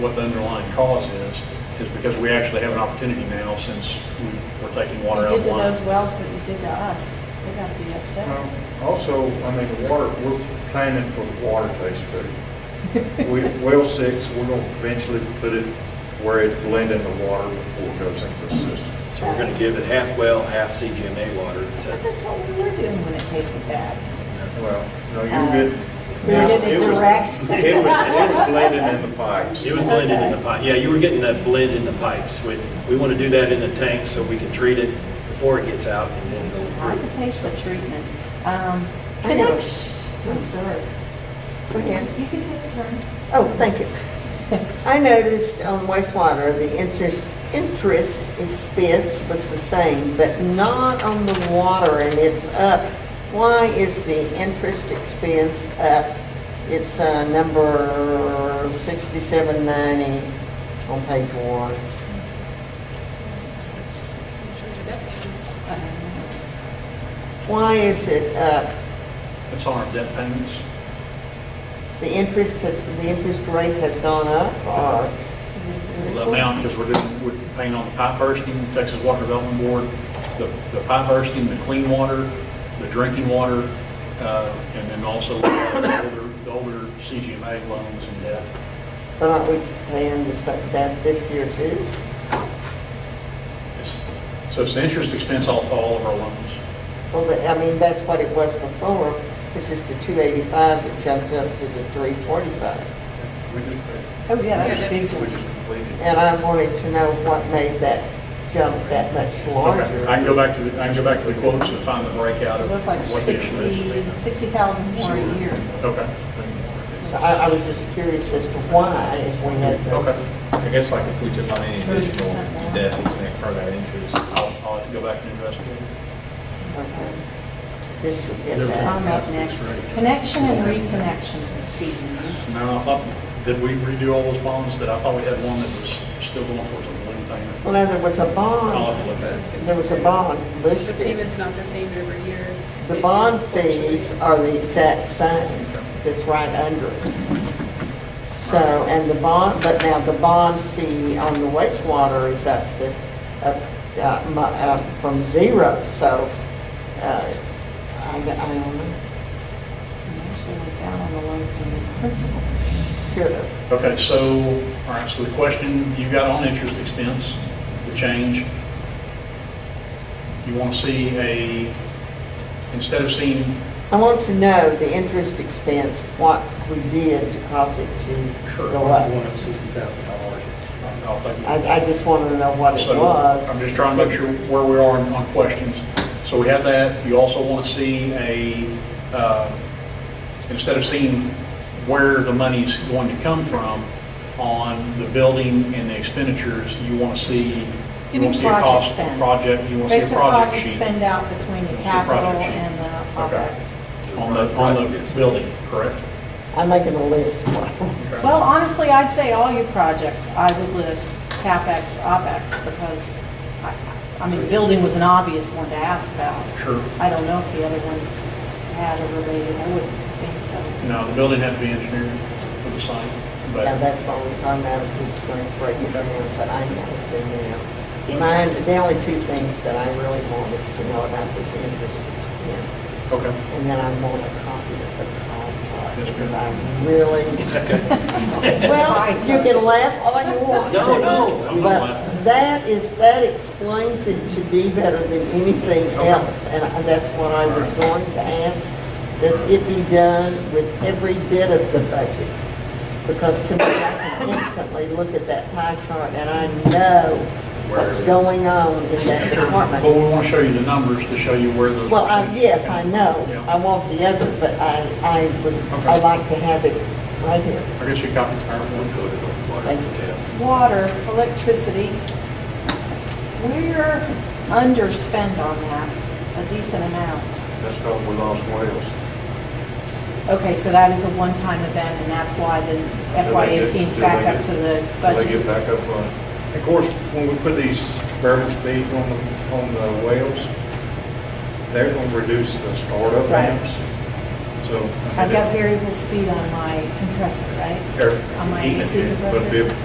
what the underlying cause is, is because we actually have an opportunity now since we- we're taking water You out did of to line. those wells what you did to us. They're gonna be Well, upset. Also, I mean, the water, we're planning for the water taste too. We, well six, we're gonna eventually put it where it's blending the water before it goes into the system. So we're going to give it half well, half CGMA water But to, that's what we were doing when it tasted bad. Well, no, Uh, you get. we did it was- direct. It was, it was blending in the pipes. it was blended in the pipe. Yeah, you were getting that blend in the pipes. We, we want to do that in the tank so we can treat it before it gets out and then I go can taste the treatment. Um, I know. Connection, I'm sorry. Go ahead. You can take a turn. Oh, thank you. I noticed on wastewater, the interest, interest expense was the same, but not on the water, and it's up. Why is the interest expense up? It's uh, number 6790 on page one. Why is it up? It's on our debt payments. The interest has, the interest rate has gone up, or? The amount, because we're doing, we're paying on the pipe bursting, Texas Water Development Board, the, the pipe bursting, the clean water, the drinking water, uh, and then also the older, the older CGMA loans and debt. But aren't we paying the sa- that this year too? It's- So it's the interest expense off all of our loans. Well, the- I mean, that's what it was before, which is the two eighty-five that jumped up to the three forty-five. We just, Oh, yeah, that's a big we one. just completed. And I wanted to know what made that jump that much Okay, I can larger. go back to, the I can go back to the quotes and find the breakout of. That's like what the interest 60, is. 60,000 more a year. Okay, So I, I was just curious as to why, if we had the. okay. I guess like if we took on any additional 30% now. debt, it's going to incur that interest. I'll, I'll have to go back and investigate. okay. This would get I'm that. up next. Connection and reconnection fees. Now, I thought, did we redo all those bonds? That I thought we had one that was still going towards a balloon payment. Well, now, there was a I'll bond, have to look at it. there was a bond The listed. payment's not the same every year. The bond fees are the exact same, that's right under it. So, and the bond, but now the bond fee on the wastewater is up to, up, uh, mu- uh, from zero, so, uh, I, I don't know, And Actually went down on the loan payment principal. should have. Okay, so, all right, so the question you got on interest expense, the change, you want to see a, instead of seeing, I want to know the interest expense, what we did to cause it to Sure, go up. I'll take. I, I just wanted to know what it So was. I'm just trying to make sure where we are on on questions. So we have that. You also want to see a, uh, instead of seeing where the money's going to come from on the building and the expenditures, you want to see, you Give me want to see a project cost spend. project, you want to see Break a the project project sheet spend out between the See a project capital sheet. and the Okay. OpEx. on the, on the building, correct? I'm making a list. Well, honestly, I'd say all your projects, I would list CapEx, OpEx, because, I- I mean, building was an obvious one to ask about. Sure. I don't know if the other ones had a related, I wouldn't think so. No, the building had to be engineered for the site, but. Now, that's what we're talking about, if it's going to break it down, but I know it's in there. Yes. Mine, the only two things that I really want is to know about this interest expense, Okay. and then I want a copy of the contract, That's good. because I really, well, you can laugh all you want. No, no, I'm not laughing. But that is, that explains it to be better than anything Okay. else, and I- that's what I was going to ask, that it be done with every bit of the budget. Because to me, I can instantly look at that pie chart and I know what's going on in that But we department. want to show you the numbers to show you where those. Well, uh, I, percentages yes, came I from. know, Yeah. I want the other, but I, I would, I Okay. like to have it right here. I guess you copied the PowerPoint. to the water. Thank you. Yeah. Water, electricity, we're underspend on that a decent amount. That's how we lost Wales. Okay, so that is a one-time event, and that's why the FY Did they get- 18's did back they up get- to the Did they get budget. back up on it? Of course, when we put these variable speeds on the, on the whales, they're gonna reduce the startup Right. amps. So. I mean, I've got variable speed on my compressor, right? they're- On my even, AC compressor. But if